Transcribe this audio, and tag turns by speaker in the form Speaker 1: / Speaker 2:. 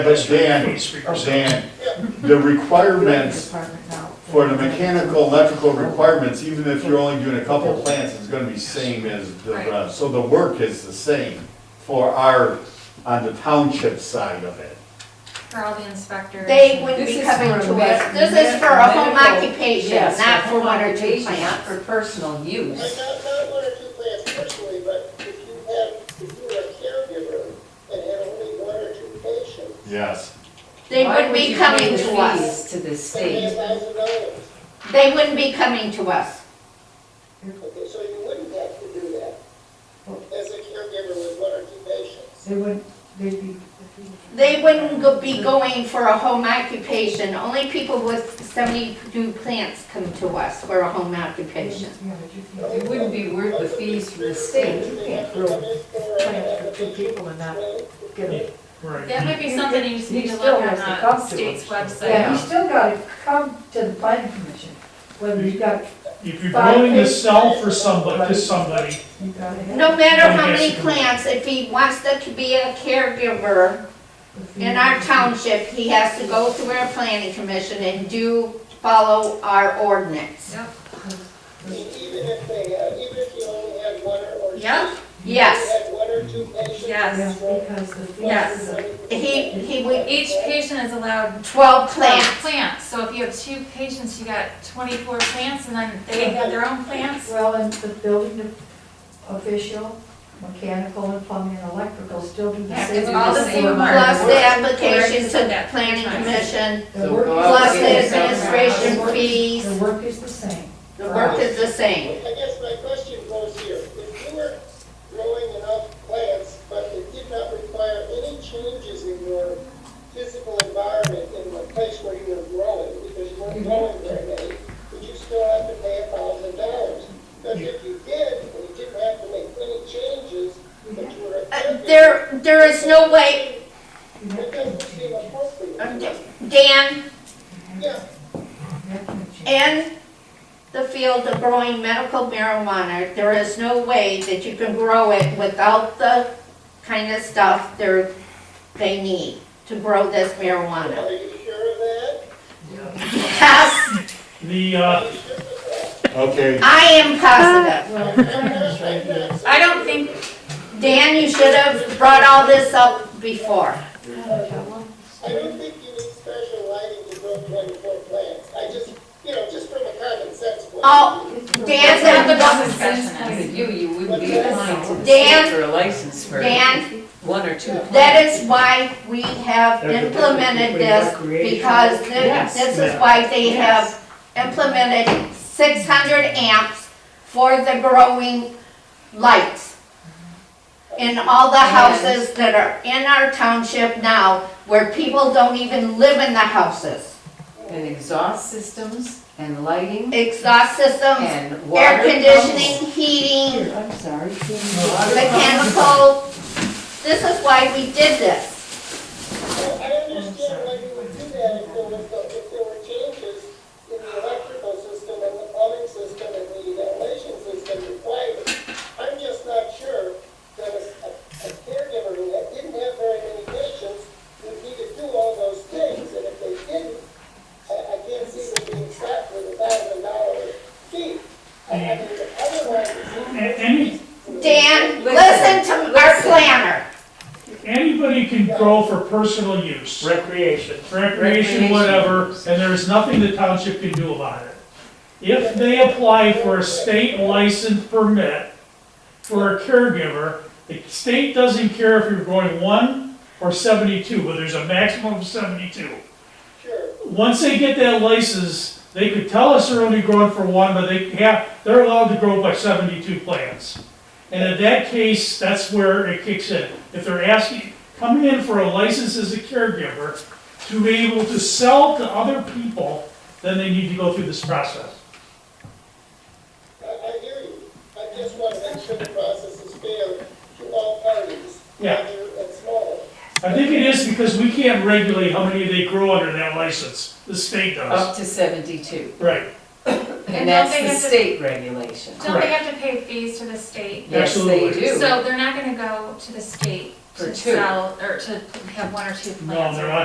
Speaker 1: But Dan, Dan, the requirements for the mechanical, electrical requirements, even if you're only doing a couple plants, is gonna be same as the rest. So the work is the same for our, on the township side of it.
Speaker 2: For all the inspectors.
Speaker 3: They wouldn't
Speaker 4: This
Speaker 3: be
Speaker 4: is
Speaker 3: coming
Speaker 4: for
Speaker 3: to
Speaker 4: med-
Speaker 3: us, this is for a home
Speaker 4: medical.
Speaker 3: occupation,
Speaker 4: Yes,
Speaker 3: not for
Speaker 4: home
Speaker 3: one or two
Speaker 4: occupation, not
Speaker 3: plants.
Speaker 4: For personal
Speaker 5: Like,
Speaker 4: use.
Speaker 5: not, not one or two plants personally, but if you have, if you are a caregiver and have only one or two patients,
Speaker 1: Yes.
Speaker 3: They
Speaker 4: Why
Speaker 3: wouldn't be
Speaker 4: you pay
Speaker 3: coming
Speaker 4: the
Speaker 3: to
Speaker 4: fees
Speaker 3: us,
Speaker 4: To the
Speaker 5: seventy
Speaker 4: state.
Speaker 5: thousand dollars.
Speaker 3: they wouldn't be coming to us.
Speaker 5: Okay, so you wouldn't have to do that as a caregiver with one or two patients.
Speaker 6: They would, they'd be.
Speaker 3: They wouldn't go- be going for a home occupation, only people with seventy-two plants come to us for a home occupation.
Speaker 6: Yeah, but you can't-
Speaker 4: It wouldn't be worth the fees for the
Speaker 6: You
Speaker 4: state.
Speaker 5: They
Speaker 6: can't grow
Speaker 5: come in for, uh,
Speaker 6: plants for two people and not get them.
Speaker 2: That might be something you just
Speaker 6: He
Speaker 2: need to
Speaker 6: still
Speaker 2: look on
Speaker 6: has to come to
Speaker 2: the
Speaker 6: us.
Speaker 2: state's
Speaker 6: Yeah, you
Speaker 2: website.
Speaker 6: still gotta come to the planning commission, whether you got,
Speaker 7: If you're going to sell for somebody, to somebody,
Speaker 6: you gotta have.
Speaker 3: No matter how
Speaker 7: Yes.
Speaker 3: many plants, if he wants to be a caregiver in our township, he has to go through our planning commission and do follow our ordinance.
Speaker 5: I mean, even if they, uh, even if you only had one or, or.
Speaker 2: Yep,
Speaker 3: Yes,
Speaker 5: You had one or two patients.
Speaker 2: yes.
Speaker 6: Yeah, because the. fees
Speaker 2: Yes.
Speaker 6: is a-
Speaker 3: he, he would,
Speaker 2: Each patient is allowed
Speaker 3: twelve
Speaker 2: twelve
Speaker 3: plants.
Speaker 2: plants, so if you have two patients, you got twenty-four plants, and then they have their own plants.
Speaker 6: Well, and the building official, mechanical and plumbing and electrical still do the
Speaker 2: Yeah,
Speaker 6: same.
Speaker 2: it's all the same mark.
Speaker 3: Plus the application
Speaker 2: Where's
Speaker 3: to the
Speaker 2: that?
Speaker 3: planning commission,
Speaker 6: The work is the
Speaker 3: plus the
Speaker 6: same.
Speaker 3: administration fees,
Speaker 6: The work is the same.
Speaker 3: the work is the same.
Speaker 5: I guess my question goes here, if you were growing enough plants, but it did not require any changes in your physical environment in the place where you were growing, because you weren't growing very many, would you still have to pay a thousand dollars? But if you did, and you didn't have to make any changes, but you were.
Speaker 3: Uh, There, there is no way,
Speaker 6: You have
Speaker 5: It
Speaker 6: to
Speaker 5: doesn't seem
Speaker 6: change it.
Speaker 3: uh,
Speaker 5: appropriate.
Speaker 3: Dan,
Speaker 5: Yeah,
Speaker 6: You have to change it.
Speaker 3: in the field of growing medical marijuana, there is no way that you can grow it without the kind of stuff they're, they need to grow this marijuana.
Speaker 5: are you sure of that?
Speaker 3: Yes,
Speaker 7: the, uh,
Speaker 1: Okay,
Speaker 3: I am positive.
Speaker 6: Well, the plan is right here.
Speaker 2: I don't think,
Speaker 3: Dan, you should have brought all this up before.
Speaker 5: I don't think you need special lighting to grow twenty-four plants. I just, you know, just from a common sense point.
Speaker 3: Oh,
Speaker 2: that's not the
Speaker 3: Dan,
Speaker 2: bus
Speaker 4: Point
Speaker 2: discussion
Speaker 4: of
Speaker 2: is.
Speaker 4: view, you wouldn't be applying to the
Speaker 3: Dan-
Speaker 4: state for a license for
Speaker 3: Dan,
Speaker 4: one or two
Speaker 3: That
Speaker 4: plants.
Speaker 3: is why we have implemented this, because thi-
Speaker 4: Yes.
Speaker 3: this is why they have implemented six hundred amps for the growing lights in all the houses that are in our township now, where people don't even live in the houses.
Speaker 4: And exhaust systems and lighting
Speaker 3: Exhaust systems,
Speaker 4: and water.
Speaker 3: air
Speaker 4: pumps.
Speaker 3: conditioning, heating,
Speaker 4: Here, I'm sorry.
Speaker 6: Water
Speaker 3: mechanical. This is why we did this.
Speaker 5: I understand why you would do that if there was, if there were changes in the electrical system and the plumbing system and the ventilation system required. I'm just not sure that a a caregiver who had- didn't have very many patients would need to do all those things, and if they didn't, I, I can't see them being slapped with a thousand dollar fee. I I mean, otherwise, it seems
Speaker 7: a- any,
Speaker 4: Listen,
Speaker 3: Dan, listen to our planner.
Speaker 7: anybody can grow for personal use.
Speaker 8: Recreation.
Speaker 7: Recreation, whatever, and there's nothing the township can do about it. If they apply for a state license permit for a caregiver, the state doesn't care if you're growing one or seventy-two, but there's a maximum of seventy-two.
Speaker 5: sure.
Speaker 7: Once they get that license, they could tell us they're only growing for one, but they have, they're allowed to grow by seventy-two plants. And in that case, that's where it kicks in. If they're asking, coming in for a license as a caregiver to be able to sell to other people, then they need to go through this process.
Speaker 5: I, I hear you. I just want to make sure the process is fair to all parties,
Speaker 7: Yeah.
Speaker 5: larger and smaller.
Speaker 7: I think it is because we can't regulate how many they grow under that license. The state does.
Speaker 4: Up to seventy-two.
Speaker 7: Right,
Speaker 2: And
Speaker 4: And that's
Speaker 2: don't they
Speaker 4: the
Speaker 2: have to-
Speaker 4: state regulation.
Speaker 2: Don't they have to pay fees to the state?
Speaker 4: Yes, they
Speaker 7: Absolutely.
Speaker 4: do.
Speaker 2: So they're not gonna go to the state
Speaker 9: For
Speaker 4: to
Speaker 9: two.
Speaker 4: sell, or to have one or two plants.
Speaker 2: No, they're
Speaker 4: or
Speaker 2: not